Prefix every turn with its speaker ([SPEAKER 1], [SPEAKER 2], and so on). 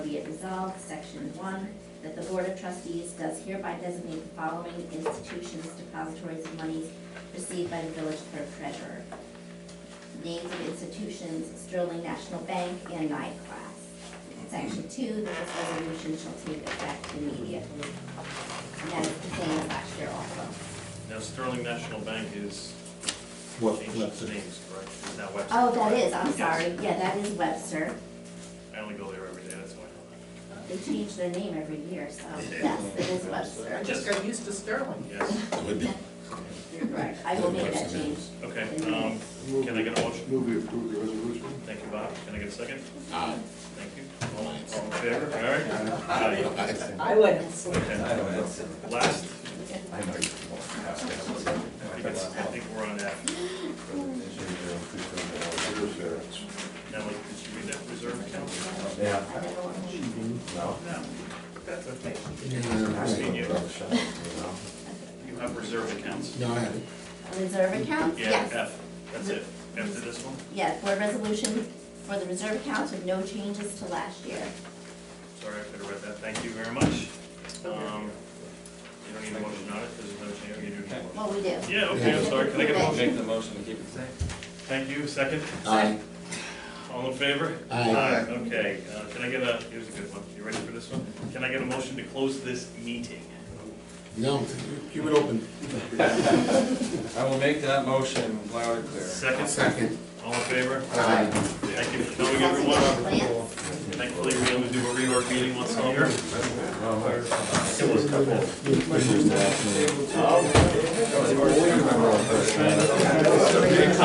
[SPEAKER 1] it resolved, section one, that the Board of Trustees does hereby designate the following institutions depositories of monies received by the village clerk treasurer. Names of institutions, Sterling National Bank and NICLAS. Section two, that this resolution shall take effect immediately. And that is the same as last year also.
[SPEAKER 2] Now Sterling National Bank is
[SPEAKER 3] What,
[SPEAKER 2] changed its
[SPEAKER 3] Webster?
[SPEAKER 2] names, correct? Is now Webster.
[SPEAKER 1] Oh, that is, I'm
[SPEAKER 2] Yes.
[SPEAKER 1] sorry, yeah, that is Webster.
[SPEAKER 2] I only go there every day, that's why I
[SPEAKER 1] They change their name every year, so yes, it is Webster.
[SPEAKER 4] I just got used to Sterling.
[SPEAKER 2] know that. Yes,
[SPEAKER 1] You're right, I will make that change.
[SPEAKER 2] okay, um, can I get a motion?
[SPEAKER 3] Move we approve the resolution?
[SPEAKER 2] Thank you, Bob, can I get a second?
[SPEAKER 5] Aye.
[SPEAKER 2] Thank you. All all in favor, all right? Aye.
[SPEAKER 4] I went.
[SPEAKER 2] Okay. Last,
[SPEAKER 6] I know you won't have to have a
[SPEAKER 2] I think it's, I think we're on that.
[SPEAKER 6] presentation.
[SPEAKER 2] Now, did you read that reserve account?
[SPEAKER 6] Yeah,
[SPEAKER 1] I never want to leave.
[SPEAKER 6] no.
[SPEAKER 2] No,
[SPEAKER 4] That's okay.
[SPEAKER 2] Christine, you,
[SPEAKER 6] Well,
[SPEAKER 2] you have reserve accounts.
[SPEAKER 5] No, I had it.
[SPEAKER 1] Reserve accounts,
[SPEAKER 2] Yeah,
[SPEAKER 1] yes.
[SPEAKER 2] F, that's it. After this one,
[SPEAKER 1] Yes, board resolution for the reserve accounts with no changes to last year.
[SPEAKER 2] sorry, I could have read that, thank you very much. Um, You don't need a motion on it, because there's no change, you do need a motion.
[SPEAKER 1] Well, we do.
[SPEAKER 2] Yeah, okay, I'm sorry, can I
[SPEAKER 1] Thank
[SPEAKER 2] get a
[SPEAKER 1] you.
[SPEAKER 2] motion?
[SPEAKER 7] Make the motion to keep it safe.
[SPEAKER 2] Thank you, second.
[SPEAKER 5] Aye.
[SPEAKER 2] All in favor?
[SPEAKER 5] Aye.
[SPEAKER 2] Okay, uh, can I get a, here's a good one, you ready for this one? Can I get a motion to close this meeting?
[SPEAKER 5] No, keep it open.
[SPEAKER 7] I will make that motion loud and clear.
[SPEAKER 2] Second,
[SPEAKER 5] Second.
[SPEAKER 2] all in favor?
[SPEAKER 5] Aye.
[SPEAKER 2] Thank you for coming, everyone.
[SPEAKER 1] Plans?
[SPEAKER 2] Thankfully, we only do a reorg meeting once a year. It was couple.